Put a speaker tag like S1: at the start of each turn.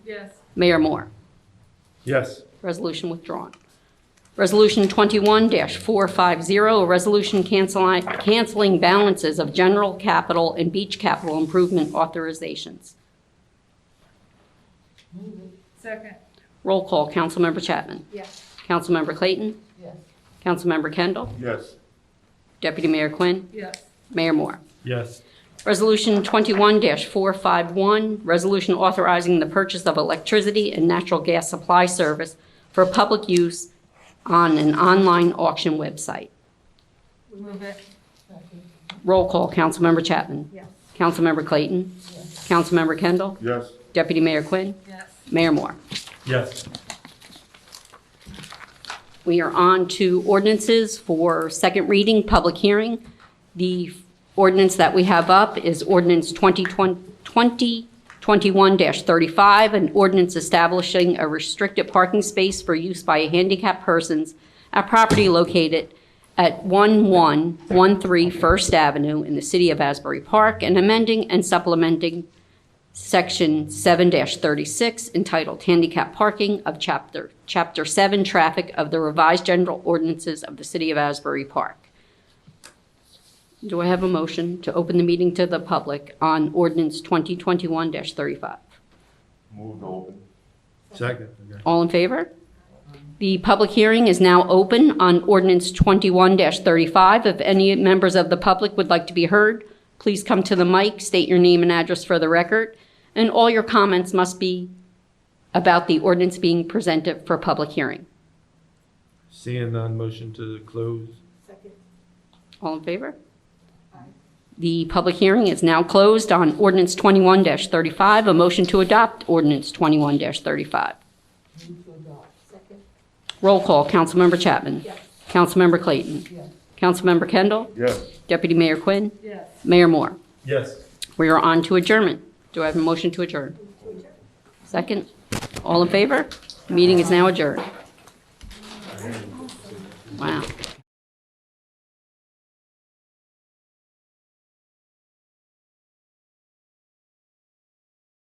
S1: Yes.
S2: Mayor Moore.
S3: Yes.
S2: Resolution withdrawn. Resolution 21-450, a resolution canceli- canceling balances of general capital and beach capital improvement authorizations.
S1: Second.
S2: Roll call, Councilmember Chapman.
S1: Yes.
S2: Councilmember Clayton.
S1: Yes.
S2: Councilmember Kendall.
S3: Yes.
S2: Deputy Mayor Quinn.
S1: Yes.
S2: Mayor Moore.
S3: Yes.
S2: Resolution 21-451, resolution authorizing the purchase of electricity and natural gas supply service for public use on an online auction website.
S1: Move it.
S2: Roll call, Councilmember Chapman.
S1: Yes.
S2: Councilmember Clayton. Councilmember Kendall.
S3: Yes.
S2: Deputy Mayor Quinn.
S1: Yes.
S2: Mayor Moore.
S3: Yes.
S2: We are on to ordinances for second reading, public hearing. The ordinance that we have up is ordinance 2021-35, an ordinance establishing a restricted parking space for use by handicapped persons at property located at 1113 First Avenue in the city of Asbury Park, and amending and supplementing Section 7-36 entitled Handicap Parking of Chapter, Chapter 7 Traffic of the Revised General Ordinances of the City of Asbury Park. Do I have a motion to open the meeting to the public on ordinance 2021-35?
S3: Move to open. Second. Okay.
S2: All in favor? The public hearing is now open on ordinance 21-35. If any members of the public would like to be heard, please come to the mic, state your name and address for the record, and all your comments must be about the ordinance being presented for public hearing.
S3: Seeing none, motion to close.
S1: Second.
S2: All in favor? The public hearing is now closed on ordinance 21-35. A motion to adopt ordinance 21-35.
S1: Move to adopt. Second.
S2: Roll call, Councilmember Chapman.
S1: Yes.
S2: Councilmember Clayton.
S1: Yes.
S2: Councilmember Kendall.
S3: Yes.
S2: Deputy Mayor Quinn,
S1: Yes.
S2: Mayor Moore.
S3: Yes.
S2: We are on to adjournment. Do I have a motion to adjourn? Second? All in favor? Meeting is now adjourned. Wow.